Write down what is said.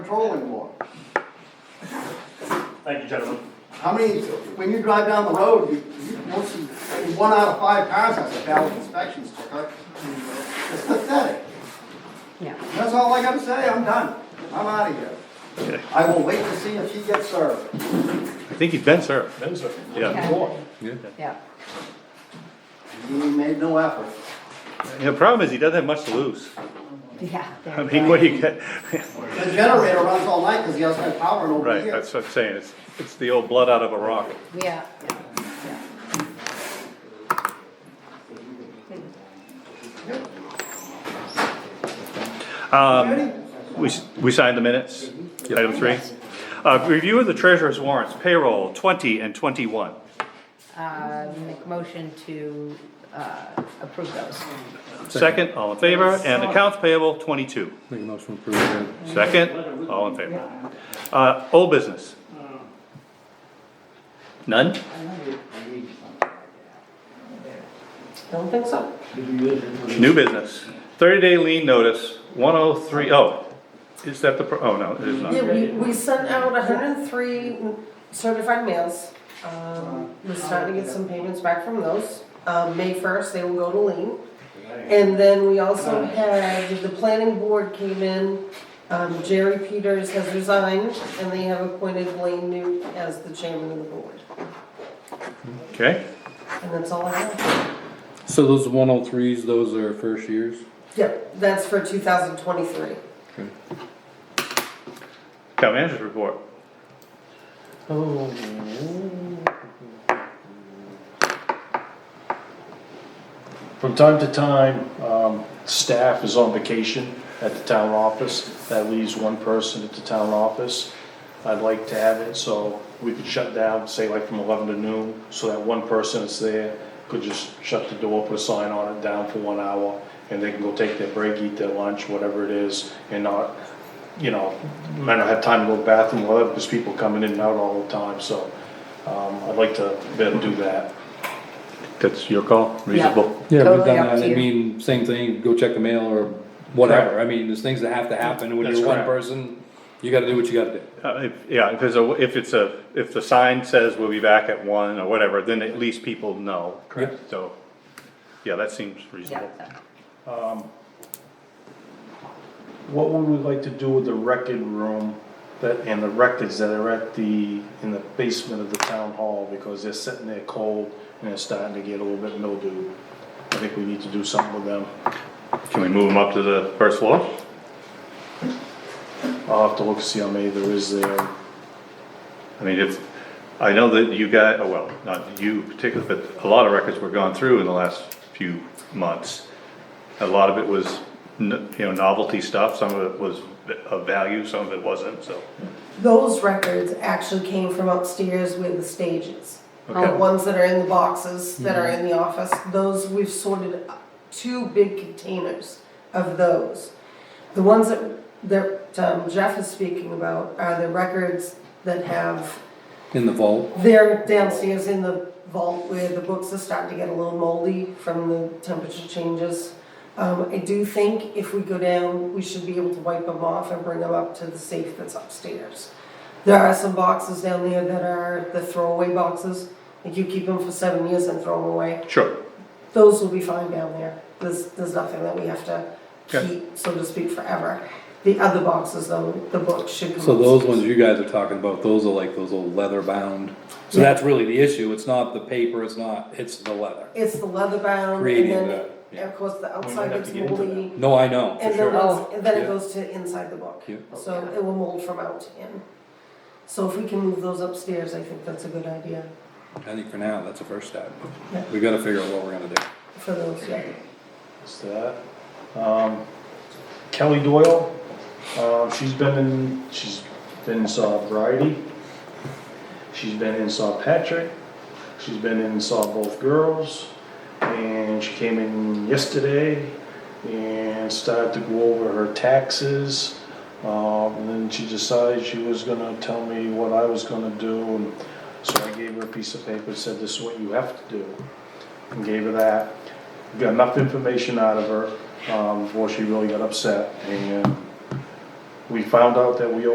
patrolling more. Thank you, gentlemen. How many, when you drive down the road, you, you, most of, I mean, one out of five cars has a valid inspection sticker. It's pathetic. Yeah. That's all I gotta say, I'm done. I'm out of here. I will wait to see if he gets served. I think he's been served. That is a. Yeah. Yeah, He made no effort. The problem is he doesn't have much to lose. yeah. there I you mean, go. what do you get? The generator runs all night because he has no power in over Right, here. that's what I'm saying. It's, it's the old blood out of a rock. Yeah, yeah, yeah. Um, we, s- we signed the minutes, item three. Uh, review of the treasurer's warrants, payroll twenty and twenty-one. Uh, make motion to, uh, approve those. Second, all in favor, and accounts payable twenty-two. Make a motion to approve that. Second, all in favor. Uh, old business? None? Don't think so. New business, thirty-day lien notice, one oh three, oh, is that the, pro- oh, no, it is not. Yeah, we, we sent out hundred and three certified mails. Um, we're starting to get some payments back from those. Um, May first, they will go to lean. And then we also had, the planning board came in, um, Jerry Peters has resigned, and they have appointed Blaine Newt as the chairman of the board. Okay, And that's all I have. So those one oh threes, those are first years? Yep, that's for two thousand twenty-three. town manager's report. From time to time, um, staff is on vacation at the town office. That leaves one person at the town office. I'd like to have it so we could shut down, say like from eleven to noon, so that one person that's there could just shut the door, put a sign on it, down for one hour, and they can go take their break, eat their lunch, whatever it is, and not, you know, might not have time to go to the bathroom, whatever, because people come in and out all the time, so, um, I'd like to be able to do that. That's your call, reasonable. Yeah, we've Totally done up that, to I you. mean, same thing, go check the mail or whatever, I mean, there's things that have to happen, when That's you're one correct. person, you gotta do what you gotta do. Uh, if, yeah, if there's a, if it's a, if the sign says we'll be back at one or whatever, then at least people know. Correct. So, yeah, that seems Yeah, reasonable. What would we like to do with the record room that, and the records that are at the, in the basement of the town hall? Because they're sitting there cold and it's starting to get a little bit mildew. I think we need to do something with them. Can we move them up to the first floor? I'll have to look, and see how many there is there. I mean, if, I know that you got, oh, well, not you particularly, but a lot of records were gone through in the last few months. A lot of it was, n- you know, novelty stuff, some of it was of value, some of it wasn't, so. Those records actually came from upstairs with the stages. Uh, Okay. The ones that are in the boxes that are in the office, those, we've sorted two big containers of those. The ones that, that um, Jeff is speaking about are the records that have, In the vault, they're downstairs in the vault where the books are starting to get a little moldy from the temperature changes. Um, I do think if we go down, we should be able to wipe them off and bring them up to the safe that's upstairs. There are some boxes down there that are the throwaway boxes, like you keep them for seven years and throw them away. Sure. Those will be fine down there, there's, there's nothing that we have to Okay. keep, so to speak, forever. The other boxes though, the books should go. so those upstairs. ones you guys are talking about, those are like those old leather bound, so that's really the issue, it's not the paper, it's not, it's the leather. It's the leather bound and Creating then, that, and of course, the outside have gets to get into moldy. No, I know, for And then, sure, it's- and then Oh, Yeah. it goes to inside the book. Yeah. So it will mold from out to in. So if we can move those upstairs, I think that's a good idea I think for now, that's a first step, Yeah. we gotta figure out what we're gonna do. for those, yeah. Is that, um, Kelly Doyle, uh, she's been in, she's been in Saw Variety. She's been in Saw Patrick, she's been in Saw Both Girls, and she came in yesterday and started to go over her taxes. Um, and then she decided she was gonna tell me what I was gonna do, and so I gave her a piece of paper, said this is what you have to do. And gave her that, got enough information out of her, um, before she really got upset, and we found out that we